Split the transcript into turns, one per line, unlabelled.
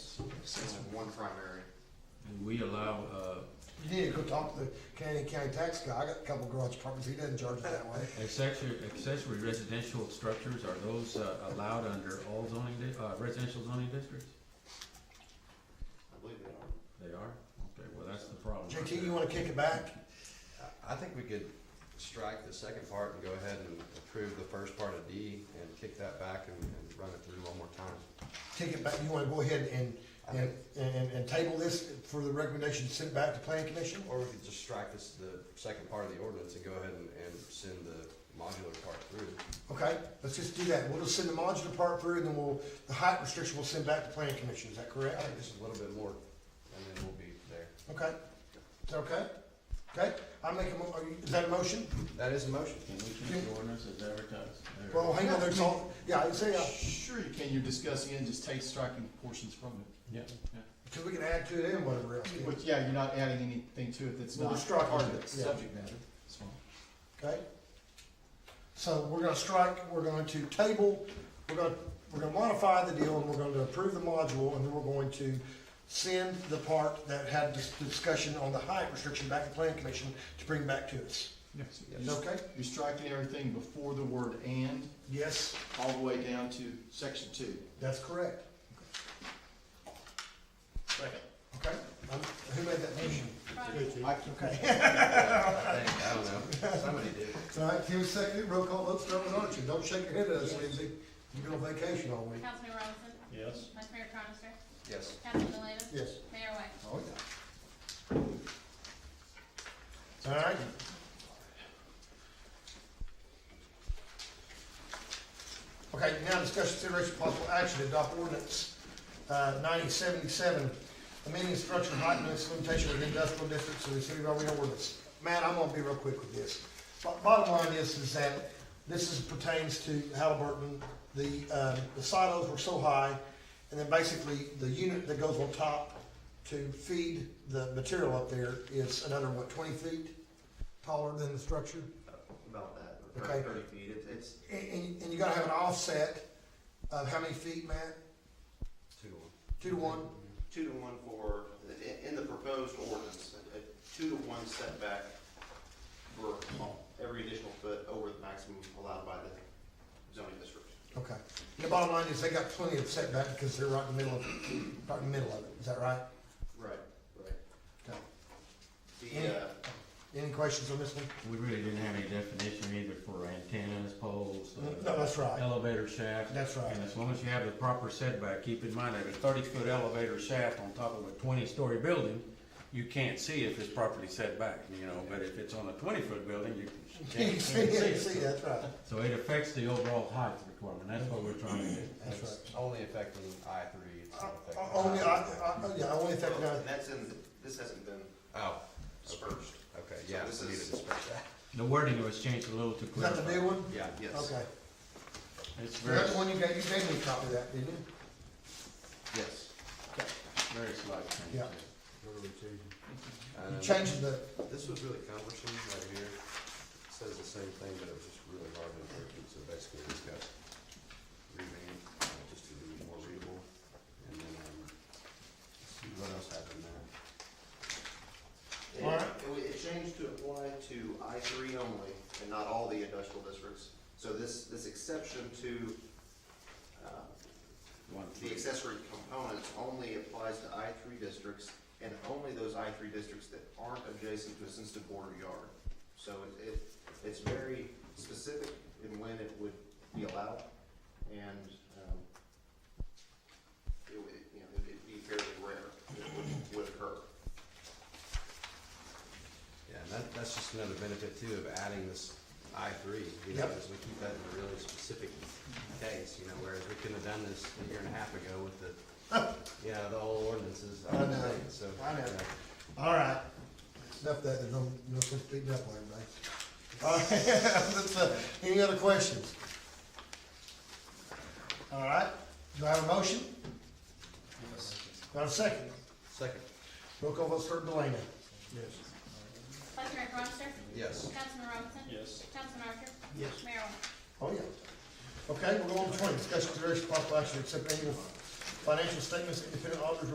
since one primary.
And we allow, uh,
You need to go talk to the Canadian County tax guy. I got a couple garage properties. He doesn't charge it that way.
accessory, accessory residential structures, are those uh, allowed under all zoning, di- uh, residential zoning districts?
I believe they are.
They are? Okay, well, that's the problem.
JT, you wanna kick it back?
I think we could strike the second part and go ahead and approve the first part of D and kick that back and, and run it through one more time.
Kick it back. You wanna go ahead and, and, and, and table this for the recommendation, send it back to planning commission?
Or we could just strike this, the second part of the ordinance and go ahead and, and send the modular part through.
Okay, let's just do that. We'll just send the modular part through and then we'll, the height restriction we'll send back to planning commission. Is that
I
correct?
think just a little bit more, and then we'll be there.
Okay. Is that okay? Okay, I make a mo- are you- is that a motion?
That is a motion.
Can we keep the ordinance as advertised? There.
Well, hang on, there's all, yeah, I say, uh,
Sure you can, you're discussing it, just take striking portions from it.
Yeah.
cause we can add to it and whatever else. yeah.
But yeah, you're not adding anything to it that's
Well,
not
we're striking
part
it,
of the
yeah.
subject matter. That's fine.
Okay? So we're gonna strike, we're going to table, we're gonna, we're gonna modify the deal, and we're going to approve the module, and then we're going to send the part that had this discussion on the height restriction back to planning commission to bring back to us.
Yes.
Is that okay?
You're striking everything before the word and,
Yes,
all the way down to section two.
that's correct.
Second.
Okay? Um, Who made that motion?
I
Okay.
I think, I don't know, somebody did.
All right, Tim seconded, roll call, vote, start with Archie. Don't shake your head at us, Lindsay. You've been on vacation all week.
Councilman Robinson?
Yes.
Vice Mayor Cronister?
Yes.
Councilman Delaney?
Yes.
Mayor White?
Oh, yeah. All right. Okay, now discussion consideration possible action to adopt ordinance ninety seventy-seven, amending structure height and its limitation of industrial districts of the city of Arlington ordinance. Matt, I'm gonna be real quick with this. Bo- Bottom line is, is that this is pertains to Halliburton, the, um, the silos were so high, and then basically the unit that goes on top to feed the material up there is another, what, twenty feet taller than the structure?
About that,
Okay.
thirty, thirty feet, It's- it's,
And, and, and you gotta have an offset of how many feet, Matt?
Two to one.
Two to one?
two to one for, in, in the proposed ordinance, a, a two to one setback for every additional foot over the maximum allowed by the zoning district.
Okay. The bottom line is they got plenty of setback because they're right in the middle of, right in the middle of it. Is that right?
Right, right.
Okay.
The, uh,
Any questions on this one?
We really didn't have any definition either for antennas, poles, uh,
No, that's right.
elevator shaft.
That's right.
And as long as you have the proper setback, keep in mind that a thirty-foot elevator shaft on top of a twenty-story building, you can't see if it's properly set back, you know, but if it's on a twenty-foot building, you
You
can't
can
can't
see, you can
see
see,
it.
that's right.
So it affects the overall height requirement, that's what we're trying to do.
That's right.
It's Only affecting I three, it's not
Uh,
affecting.
Only, I,
I-
I, yeah, only if that,
well, and
uh,
that's in, this hasn't been
Oh,
dispersed.
okay,
So
yeah,
this
we need
is-
to discuss that.
The wording was changed a little to
is that
clarify.
the new one?
Yeah.
Yes.
Okay.
It's very,
That's the one you gave, you gave me a copy of that, didn't you?
Yes.
very slight change.
Yeah. You
Um,
changed the,
This was really cumbersome right here. It says the same thing, but it was just really hard to interpret, so basically we just got revamped, uh, just to be more readable. And then, um, let's see what else happened there.
It,
Alright.
it- it changed to apply to I three only and not all the industrial districts. So this, this exception to, uh,
One,
the accessory components only applies to I three districts and only those I three districts that aren't adjacent to a sensitive border yard. So it, it, it's very specific in when it would be allowed and, um, it would, you know, it'd be fairly rare that it would, would occur.
Yeah, and that, that's just another benefit too of adding this I three, you know,
Yep.
is we keep that in a really specific case, you know, whereas we couldn't have done this a year and a half ago with the, you know, the old ordinances.
I know.
So.
I know.
you
all right. Enough of that, there's no, no sense beating up on everybody. All right, let's, uh, any other questions? All right, do I have a motion? Do I have a second?
Second,
Roll call vote, start Delana.
Vice Mayor Cronister?
yes.
Councilman Robinson? Yes. Councilman Archer?
Yes.
Mayor White?
Oh, yeah. Okay, we're going to twenty, discussion consideration possible action to accept annual financial statements, independent auditors